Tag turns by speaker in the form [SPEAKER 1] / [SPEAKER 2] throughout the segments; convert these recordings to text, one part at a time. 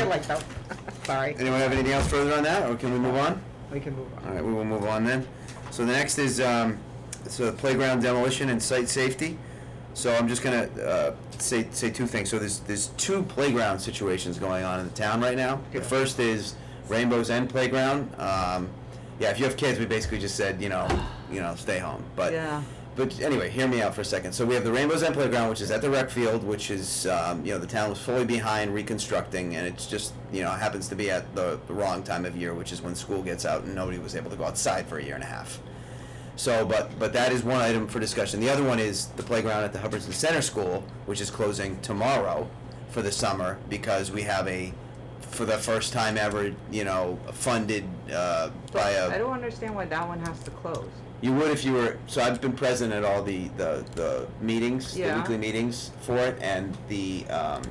[SPEAKER 1] feel like though. Sorry.
[SPEAKER 2] Anyone have anything else further on that, or can we move on?
[SPEAKER 1] We can move
[SPEAKER 2] All
[SPEAKER 1] on.
[SPEAKER 2] right, we will move on then. So the next is, um, so playground demolition and site safety. So I'm just gonna, uh, say, say two things. So there's, there's two playground situations going on in the town right now. The
[SPEAKER 1] Yeah.
[SPEAKER 2] first is Rainbow's End Playground. Um, yeah, if you have kids, we basically just said, you know, you know, stay home, but.
[SPEAKER 1] Yeah.
[SPEAKER 2] But anyway, hear me out for a second. So we have the Rainbow's End Playground, which is at the rec field, which is, um, you know, the town was fully behind reconstructing, and it's just, you know, happens to be at the, the wrong time of year, which is when school gets out and nobody was able to go outside for a year and a half. So, but, but that is one item for discussion. The other one is the playground at the Hubbardson Center School, which is closing tomorrow for the summer because we have a, for the first time ever, you know, funded uh, by a.
[SPEAKER 1] I don't understand why that one has to close.
[SPEAKER 2] You would if you were, so I've been present at all the, the, the meetings, the
[SPEAKER 1] Yeah.
[SPEAKER 2] weekly meetings for it, and the, um,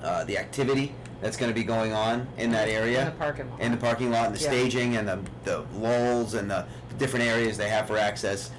[SPEAKER 2] uh, the activity that's gonna be going on in that area.
[SPEAKER 1] In the parking lot.
[SPEAKER 2] In the parking lot, and the
[SPEAKER 1] Yeah.
[SPEAKER 2] staging, and the, the lulls, and the different areas they have for access.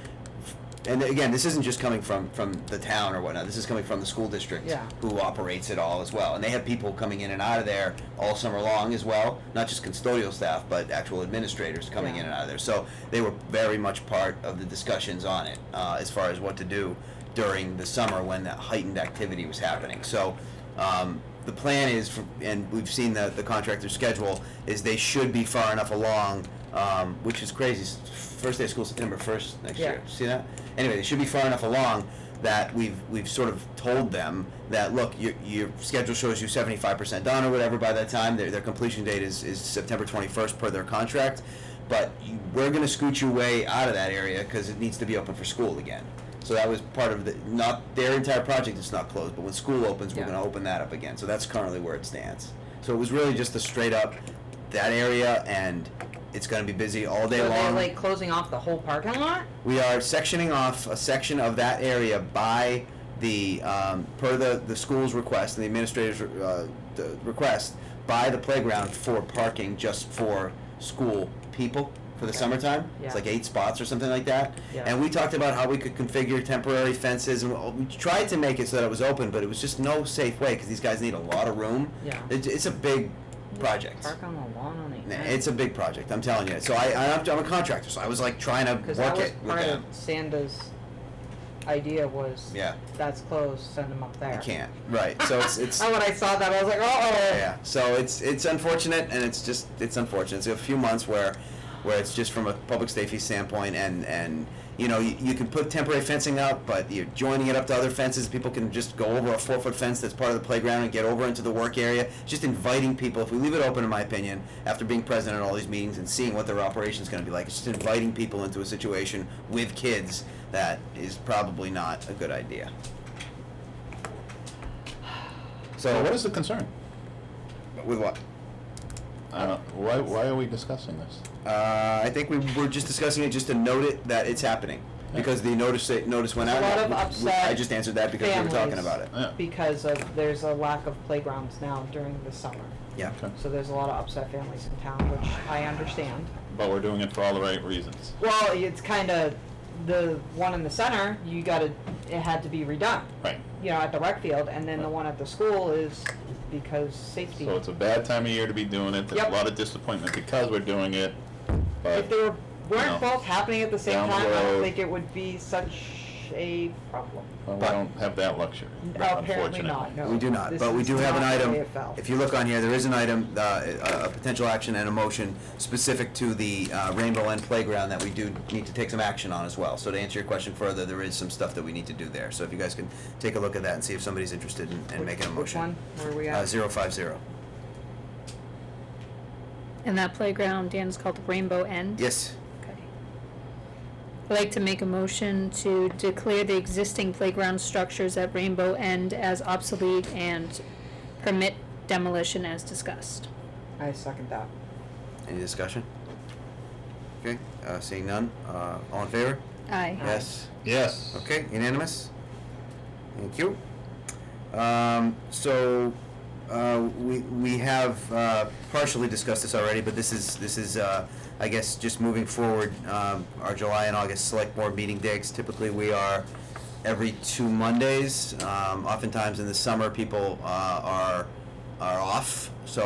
[SPEAKER 2] And again, this isn't just coming from, from the town or whatnot, this is coming from the school district.
[SPEAKER 1] Yeah.
[SPEAKER 2] Who operates it all as well, and they have people coming in and out of there all summer long as well, not just custodial staff, but actual administrators coming
[SPEAKER 1] Yeah.
[SPEAKER 2] in and out of there. So they were very much part of the discussions on it uh, as far as what to do during the summer when that heightened activity was happening. So um, the plan is, for, and we've seen the, the contractor's schedule, is they should be far enough along, um, which is crazy. S- First day of school September 1st next
[SPEAKER 1] Yeah.
[SPEAKER 2] year. See that? Anyway, they should be far enough along that we've we've sort of told them that look your, your schedule shows you 75% done or whatever by that time their, their completion date is, is september 21st per their contract but you, we're going to scoot you way out of that area because it needs to be open for school again so that was part of the not their entire project is not closed but when school opens we're
[SPEAKER 1] Yeah.
[SPEAKER 2] going to open that up again so that's currently where it stands so it was really just a straight up that area and it's going to be busy all day
[SPEAKER 1] So
[SPEAKER 2] long
[SPEAKER 1] they're like closing off the whole parking lot?
[SPEAKER 2] we are sectioning off a section of that area by the, um, per the, the school's request and the administrator's, uh, the request, by the playground for parking just for school people for the
[SPEAKER 1] Okay.
[SPEAKER 2] summertime.
[SPEAKER 1] Yeah.
[SPEAKER 2] It's like eight spots or something like that.
[SPEAKER 1] Yeah.
[SPEAKER 2] And we talked about how we could configure temporary fences and all- we tried to make it so that it was open, but it was just no safe way, cause these guys need a lot of room.
[SPEAKER 1] Yeah.
[SPEAKER 2] It's, it's a big project.
[SPEAKER 1] Park on the lawn on the
[SPEAKER 2] Nah,
[SPEAKER 1] end.
[SPEAKER 2] It's a big project, I'm telling you. So I, I'm, I'm a contractor, so I was like trying to
[SPEAKER 1] Because that
[SPEAKER 2] work
[SPEAKER 1] was
[SPEAKER 2] it with
[SPEAKER 1] part
[SPEAKER 2] them.
[SPEAKER 1] of Sanda's idea was.
[SPEAKER 2] Yeah.
[SPEAKER 1] That's closed, send them up there.
[SPEAKER 2] You can't. Right. So it's it's
[SPEAKER 1] And when I saw that, I was like, oh.
[SPEAKER 2] yeah. So it's it's unfortunate, and it's just it's unfortunate. It's a few months where where it's just from a public safety standpoint, and and you know you, you can put temporary fencing up, but you're joining it up to other fences. People can just go over a four foot fence that's part of the playground and get over into the work area. Just inviting people. If we leave it open, in my opinion, after being present at all these meetings and seeing what their operation's going to be like, it's just inviting people into a situation with kids that is probably not a good idea.
[SPEAKER 3] So
[SPEAKER 2] So
[SPEAKER 3] what is the concern?
[SPEAKER 2] with what?
[SPEAKER 3] I don't, why, why are we discussing this?
[SPEAKER 2] Uh, I think we were just discussing it just to note it that it's happening because the notice notice went
[SPEAKER 1] There's a lot
[SPEAKER 2] out.
[SPEAKER 1] of
[SPEAKER 2] We- we-
[SPEAKER 1] upset
[SPEAKER 2] I just answered that because we were talking
[SPEAKER 1] families.
[SPEAKER 2] about it.
[SPEAKER 3] Yeah,
[SPEAKER 1] Because of, there's a lack of playgrounds now during the summer.
[SPEAKER 2] Yeah.
[SPEAKER 3] okay.
[SPEAKER 1] So there's a lot of upset families in town, which I understand.
[SPEAKER 3] But we're doing it for all the right reasons.
[SPEAKER 1] Well, it's kind of the one in the center. You got to. It had to be redone.
[SPEAKER 3] Right.
[SPEAKER 1] You know, at the rec field, and then the one at the school is because safety.
[SPEAKER 3] So it's a uh, bad time of year to be doing it. There's a
[SPEAKER 1] Yep.
[SPEAKER 3] lot of disappointment because we're doing it.
[SPEAKER 1] if
[SPEAKER 3] But
[SPEAKER 1] they were, weren't
[SPEAKER 3] No.
[SPEAKER 1] both happening at the same
[SPEAKER 3] Down the
[SPEAKER 1] time, I don't
[SPEAKER 3] road.
[SPEAKER 1] think it would be such a problem.
[SPEAKER 3] well, we
[SPEAKER 2] but-
[SPEAKER 3] don't have that luxury,
[SPEAKER 1] Apparently
[SPEAKER 3] unfortunately.
[SPEAKER 1] not. No.
[SPEAKER 2] We do not,
[SPEAKER 1] This
[SPEAKER 2] but we
[SPEAKER 1] is
[SPEAKER 2] do have an
[SPEAKER 1] not the
[SPEAKER 2] item.
[SPEAKER 1] way it fell.
[SPEAKER 2] If you look on here, there is an item, uh, a a potential action and a motion specific to the uh, Rainbow End Playground that we do need to take some action on as well. So to answer your question further, there is some stuff that we need to do there. So if you guys can take a look at that and see if somebody's interested in, in
[SPEAKER 1] Which-
[SPEAKER 2] making a
[SPEAKER 1] which
[SPEAKER 2] motion.
[SPEAKER 1] one? Where are we
[SPEAKER 2] Uh,
[SPEAKER 1] at?
[SPEAKER 2] zero five zero.
[SPEAKER 4] And that playground, Dan, is called Rainbow End?
[SPEAKER 2] Yes.
[SPEAKER 4] Okay. I'd like to make a motion to declare the existing playground structures at Rainbow End as obsolete and permit demolition as discussed.
[SPEAKER 1] I second that.
[SPEAKER 2] Any discussion? Okay. Uh, seeing none. Uh, all in favor?
[SPEAKER 4] Aye.
[SPEAKER 1] Aye.
[SPEAKER 2] Yes.
[SPEAKER 3] Yes.
[SPEAKER 2] Okay, unanimous? Thank you. Um, so, uh, we, we have, uh, partially discussed this already, but this is, this is, uh, I guess, just moving forward, um, our July and August select board meeting dates, typically we are every two Mondays. Um, oftentimes in the summer, people, uh, are, are off, so